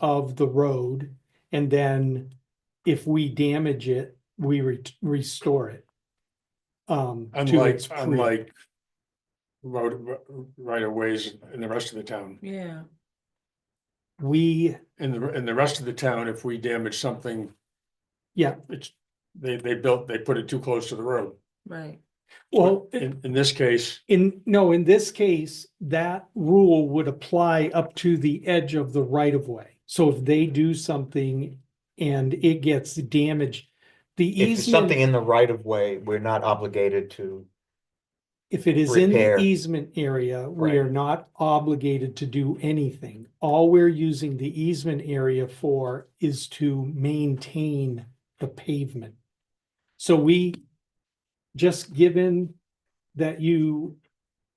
of the road. And then if we damage it, we re- restore it. Um. to Unlike, its pre- unlike road, right of ways in the rest of the town. Yeah, We, In the, in the rest of the town, if we damage something. Yeah. It's, they, they built, they put it too close to the road. right. well, In, in this case, in, no, in this case, that rule would apply up to the edge of the right of way. So if they do something and it gets damaged, the If it's easement, something in the right of way, we're not obligated to, if it is in the repair. easement area, we Right. are not obligated to do anything. All we're using the easement area for is to maintain the pavement. So we, just given that you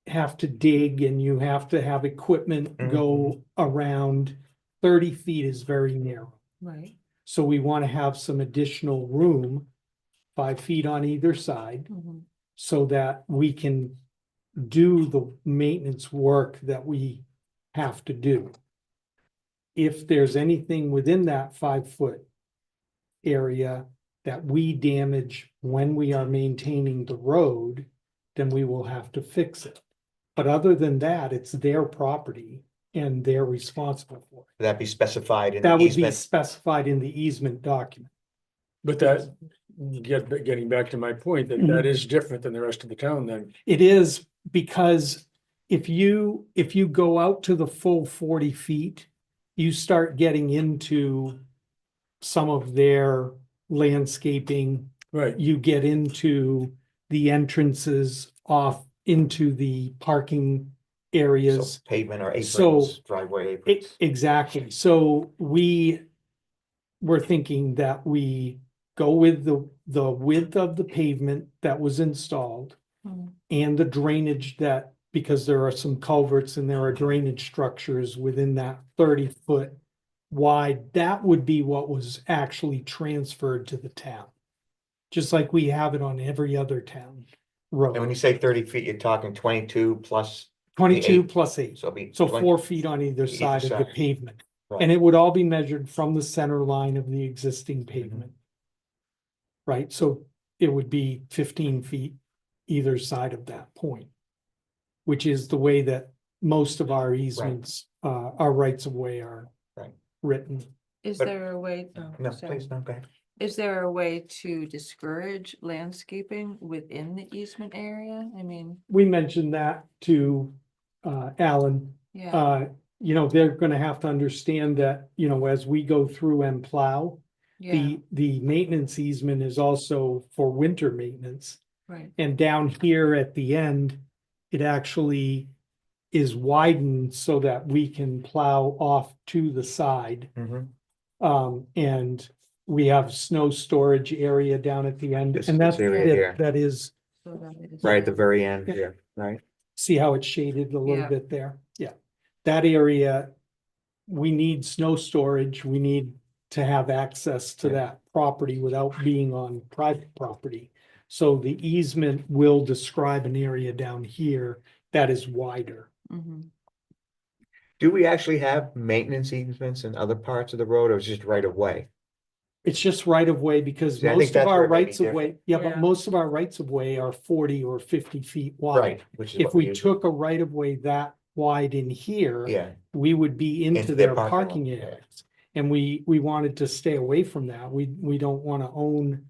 have to dig and you have to have equipment Mm-hmm. go around, thirty feet is very narrow. Right. So we want to have some additional room, five feet on either side, mhm. so that we can do the maintenance work that we have to do. If there's anything within that five-foot area that we damage when we are maintaining the road, then we will have to fix it. But other than that, it's their property and they're responsible for it. that be specified in the That would be easement. specified in the easement document. but that, get, getting back to my point, that Mm-hmm. that is different than the rest of the town then. It is because if you, if you go out to the full forty feet, you start getting into some of their landscaping. Right, You get into the entrances off into the parking So areas. Pavement or So- aprons, driveway E- aprons. Exactly. So we were thinking that we go with the, the width of the pavement that was installed Mhm. and the drainage that, because there are some culverts and there are drainage structures within that thirty foot wide, that would be what was actually transferred to the town. Just like we have it on every other town And when road, you say thirty feet, you're talking twenty-two plus, twenty-two eight. plus eight. so it'll be. So 20 four feet on either either side of the side. pavement. Right. And it would all be measured from the center line of the existing Mm-hmm. pavement. Right, so it would be fifteen feet either side of that point. Which is the way that most of our easements, uh, our rights of way are. Right. Written. Is But- there a way, oh, No, sorry. please, no, go ahead. Is there a way to discourage landscaping within the easement area? I mean, We mentioned that to, uh, Alan. yeah, Uh, you know, they're gonna have to understand that, you know, as we go through and plow. yeah, The, the maintenance easement is also for winter maintenance. right, And down here at the end, it actually is widened so that we can plow off to the side. Mhm. Um, and we have snow storage area down at the end This- and this that's, area it. here. that is, so that it is Right at the not- very end, Yeah. yeah, right? see how it's shaded a little Yeah. bit there? Yeah. That area, we need snow storage. We need to have access to Yeah. that property without being on private property. So the easement will describe an area down here that is wider. Mhm. Do we actually have maintenance easements in other parts of the road or is it just right of way? It's just right of way because See, I think most of that's our where it may be rights of way, yeah, but Yeah. most of our rights of way are forty or fifty feet wide. Right, which is If what we we use. took a right of way that wide in here. Yeah, we would be into Into their their parking lot, parking yeah. areas. And we, we wanted to stay away from that. We, we don't want to own,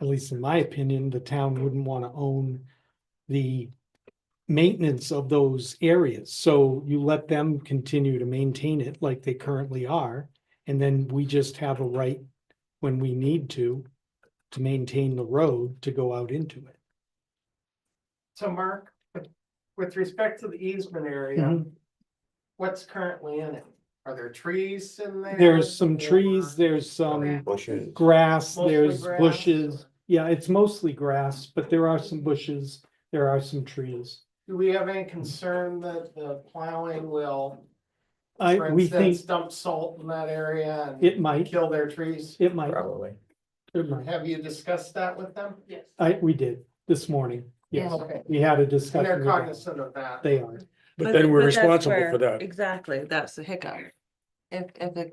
at least in my opinion, the town wouldn't want to own the maintenance of those areas. So you let them continue to maintain it like they currently are. And then we just have a right when we need to, to maintain the road to go out into it. So Mark, with- with respect to the easement area, Mhm. what's currently in it? Are there trees in there? There's some or trees, there's some bushes. grass, mostly there's grass? bushes. Yeah, it's mostly grass, but there are some bushes, there are some trees. Do we have any concern that the plowing will, I, for we think instance, dump salt in that area and it might, kill their trees? it might, Probably. it might. Have you discussed that with them? Yes. I, we did this morning. Yes, Okay, we had a and discussion. they're about- cognizant of that. They are. but then we're that's responsible where- for that. Exactly, that's the hiccup. If, if it